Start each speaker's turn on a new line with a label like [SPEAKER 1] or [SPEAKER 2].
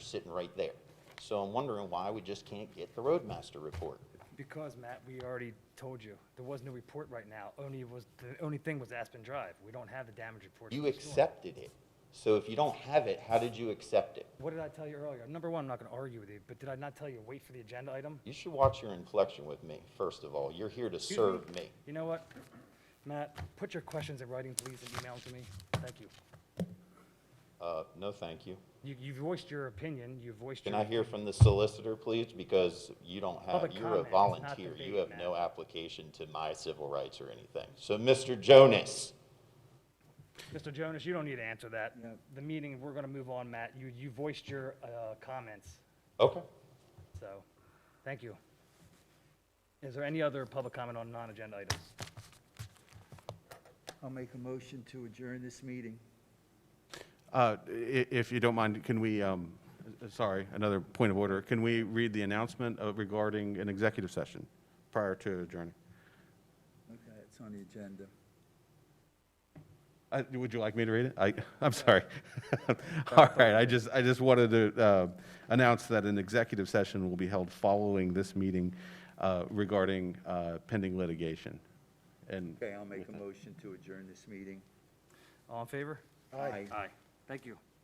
[SPEAKER 1] sitting right there. So I'm wondering why we just can't get the roadmaster report.
[SPEAKER 2] Because, Matt, we already told you, there was no report right now. Only was, the only thing was Aspen Drive. We don't have the damage report.
[SPEAKER 1] You
[SPEAKER 2] from the storm.
[SPEAKER 1] accepted it. So if you don't have it, how did you accept it?
[SPEAKER 2] What did I tell you earlier? Number one, I'm not going to argue with you, but did I not tell you, wait for the agenda item?
[SPEAKER 1] You should watch your inflection with me, first of all. You're here to
[SPEAKER 2] Excuse
[SPEAKER 1] serve me.
[SPEAKER 2] You know what? Matt, put your questions in writing, please, and email them to me. Thank you.
[SPEAKER 1] Uh, no, thank you.
[SPEAKER 2] You, you voiced your opinion, you voiced your.
[SPEAKER 1] Can I hear from the solicitor, please? Because you don't have,
[SPEAKER 2] Public
[SPEAKER 1] you're a
[SPEAKER 2] comment, it's not
[SPEAKER 1] volunteer. You
[SPEAKER 2] debate,
[SPEAKER 1] have no
[SPEAKER 2] ma'am.
[SPEAKER 1] application to my civil rights or anything. So, Mr. Jonas,
[SPEAKER 2] Mr. Jonas, you don't need to answer that. The meeting, we're going to move on, Matt. You, you voiced your, uh, comments,
[SPEAKER 1] okay.
[SPEAKER 2] so, thank you. Is there any other public comment on non-agenda items?
[SPEAKER 3] I'll make a motion to adjourn this meeting.
[SPEAKER 4] Uh, i- If you don't mind, can we, um, uh, sorry, another point of order. Can we read the announcement uh, regarding an executive session prior to adjourning?
[SPEAKER 3] Okay, it's on the agenda.
[SPEAKER 4] I- Uh, Would you like me to read it? I, I'm sorry. All right, I just, I just wanted to uh, announce that an executive session will be held following this meeting uh, regarding uh, pending litigation. And
[SPEAKER 3] Okay, I'll make a motion to adjourn this meeting.
[SPEAKER 2] All in favor?
[SPEAKER 3] Aye.
[SPEAKER 2] Aye. Thank you.